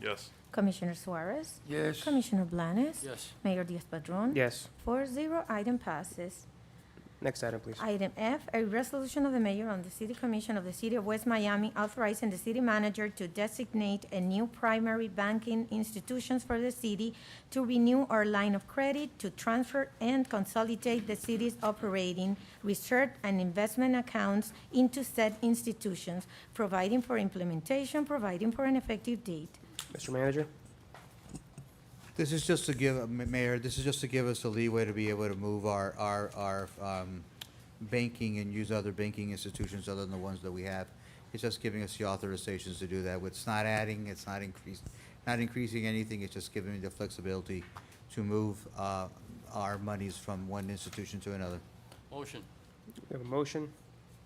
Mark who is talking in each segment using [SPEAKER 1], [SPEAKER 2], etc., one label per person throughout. [SPEAKER 1] Yes.
[SPEAKER 2] Commissioner Suarez?
[SPEAKER 3] Yes.
[SPEAKER 2] Commissioner Blanes?
[SPEAKER 3] Yes.
[SPEAKER 2] Mayor Diaz-Padrón?
[SPEAKER 4] Yes.
[SPEAKER 2] Four zero, item passes.
[SPEAKER 4] Next item, please.
[SPEAKER 2] Item F, a resolution of the mayor and the city commission of the city of West Miami authorizing the city manager to designate a new primary banking institutions for the city to renew our line of credit, to transfer and consolidate the city's operating, research and investment accounts into said institutions, providing for implementation, providing for an effective date.
[SPEAKER 4] Mr. Manager?
[SPEAKER 5] This is just to give, uh, Ma- Mayor, this is just to give us the leeway to be able to move our, our, our um, banking and use other banking institutions other than the ones that we have. It's just giving us the authorizations to do that. It's not adding, it's not increased, not increasing anything, it's just giving me the flexibility to move uh, our monies from one institution to another.
[SPEAKER 3] Motion.
[SPEAKER 4] We have a motion.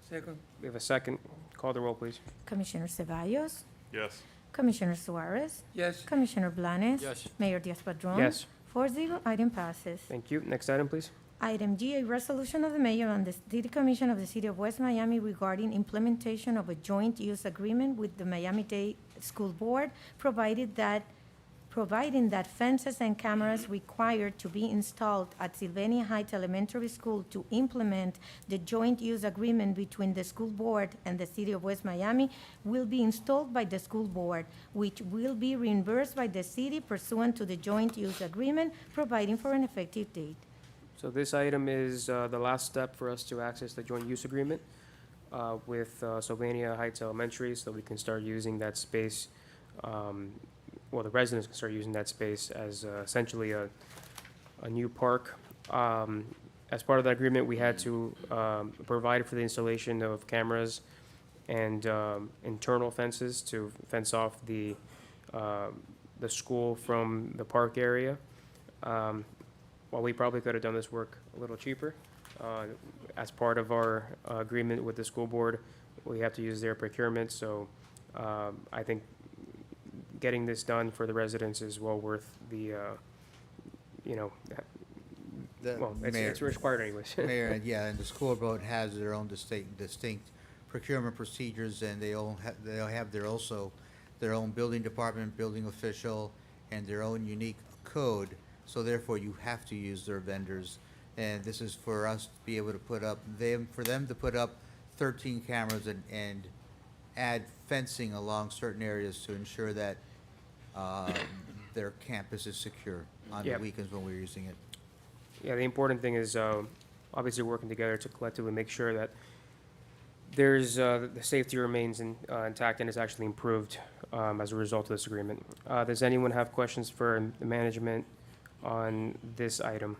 [SPEAKER 3] Second.
[SPEAKER 4] We have a second. Call the roll, please.
[SPEAKER 2] Commissioner Cevallos,
[SPEAKER 1] Yes.
[SPEAKER 2] Commissioner Suarez,
[SPEAKER 3] Yes.
[SPEAKER 2] Commissioner Blanes.
[SPEAKER 3] Yes.
[SPEAKER 2] Mayor Diaz-Padrón.
[SPEAKER 4] Yes.
[SPEAKER 2] Four zero, item passes.
[SPEAKER 4] Thank you. Next item, please.
[SPEAKER 2] Item G, a resolution of the mayor and the city commission of the city of West Miami regarding implementation of a joint use agreement with the Miami-Dade School Board, provided that, providing that fences and cameras required to be installed at Sylvania Heights Elementary School to implement the joint use agreement between the school board and the city of West Miami will be installed by the school board, which will be reimbursed by the city pursuant to the joint use agreement, providing for an effective date.
[SPEAKER 4] So this item is uh, the last step for us to access the joint use agreement uh, with uh, Sylvania Heights Elementary, so we can start using that space, um, well, the residents can start using that space as uh, essentially a, a new park. Um, As part of that agreement, we had to um, provide for the installation of cameras and um, internal fences to fence off the, um, the school from the park area. Um, while we probably could have done this work a little cheaper, uh, as part of our uh, agreement with the school board, we have to use their procurement, so um, I think getting this done for the residents is well worth the, uh, you know,
[SPEAKER 5] The-
[SPEAKER 4] well, it's-
[SPEAKER 5] Mayor-
[SPEAKER 4] it's required anyways.
[SPEAKER 5] Mayor, and yeah, and the school board has their own distinct, distinct procurement procedures, and they all have, they all have their also, their own building department, building official, and their own unique code, so therefore you have to use their vendors. And this is for us to be able to put up, them, for them to put up thirteen cameras and, and add fencing along certain areas to ensure that, uh, their campus is secure on the
[SPEAKER 4] Yep.
[SPEAKER 5] weekends when we're using it.
[SPEAKER 4] Yeah, the important thing is um, obviously working together to collectively make sure that there's, uh, the safety remains in- uh, intact and is actually improved um, as a result of this agreement. Uh, Does anyone have questions for the management on this item?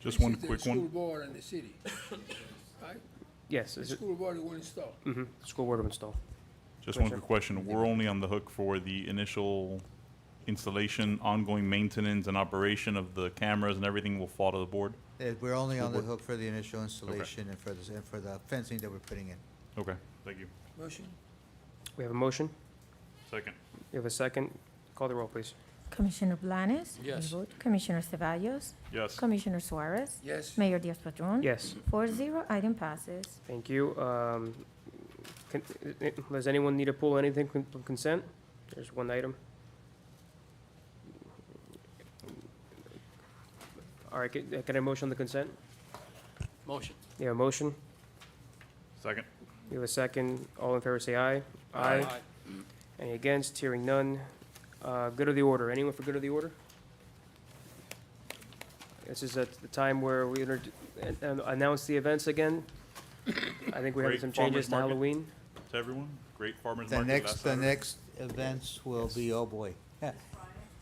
[SPEAKER 1] Just one
[SPEAKER 6] This is the
[SPEAKER 1] quick
[SPEAKER 6] School
[SPEAKER 1] one.
[SPEAKER 6] board and the city, right?
[SPEAKER 4] Yes,
[SPEAKER 6] The
[SPEAKER 4] is it,
[SPEAKER 6] school board is one install.
[SPEAKER 4] mhm, school board will install.
[SPEAKER 1] Just one
[SPEAKER 4] Commissioner.
[SPEAKER 1] quick question. We're only on the hook for the initial installation, ongoing maintenance and operation of the cameras and everything will fall to the board?
[SPEAKER 5] Uh, We're only on the hook for the initial installation and for the, and for the fencing that we're putting in.
[SPEAKER 1] Okay, thank you.
[SPEAKER 4] Mm-hmm.
[SPEAKER 6] Motion?
[SPEAKER 4] We have a motion,
[SPEAKER 1] Second.
[SPEAKER 4] we have a second. Call the roll, please.
[SPEAKER 2] Commissioner Blanes?
[SPEAKER 3] Yes.
[SPEAKER 2] You vote. Commissioner Cevallos?
[SPEAKER 1] Yes.
[SPEAKER 2] Commissioner Suarez?
[SPEAKER 6] Yes.
[SPEAKER 2] Mayor Diaz-Padrón?
[SPEAKER 4] Yes,
[SPEAKER 2] Four zero, item passes.
[SPEAKER 4] thank you. Um, can- i- i- Does anyone need to pull anything con- from consent? There's one item. All right, can can I motion the consent?
[SPEAKER 3] Motion.
[SPEAKER 4] You have a motion,
[SPEAKER 1] Second.
[SPEAKER 4] you have a second. All in favor, say aye. Any against? Hearing none. Uh, Good of the order. Anyone for good of the order? This is at the time where we inter- an- an- announce the events again. I think we have
[SPEAKER 1] Great
[SPEAKER 4] some
[SPEAKER 1] farmer's
[SPEAKER 4] changes to
[SPEAKER 1] market.
[SPEAKER 4] Halloween.
[SPEAKER 1] To everyone, great farmer's
[SPEAKER 5] The
[SPEAKER 1] market last
[SPEAKER 5] next, the
[SPEAKER 1] Saturday.
[SPEAKER 5] next events will be, oh boy.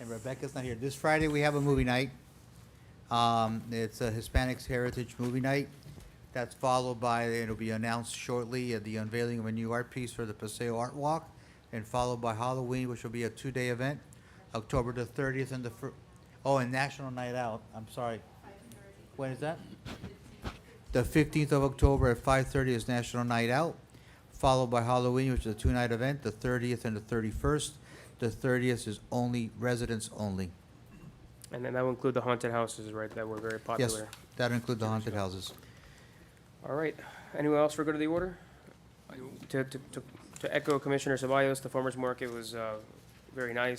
[SPEAKER 5] And Rebecca's not here. This Friday, we have a movie night. Um, it's a Hispanics Heritage Movie Night. That's followed by, it'll be announced shortly, uh, the unveiling of a new art piece for the Paseo Art Walk, and followed by Halloween, which will be a two-day event, October the thirtieth and the fir-, oh, and National Night Out, I'm sorry. When is that? The fifteenth of October at five-thirty is National Night Out, followed by Halloween, which is a two-night event, the thirtieth and the thirty-first. The thirtieth is only residents only.
[SPEAKER 4] And then that will include the haunted houses, right, that were very
[SPEAKER 5] Yes,
[SPEAKER 4] popular.
[SPEAKER 5] that includes the haunted houses.
[SPEAKER 4] All right. Anyone else for good of the order? To, to, to- to echo Commissioner Ceballos, the farmer's market was uh, very nice.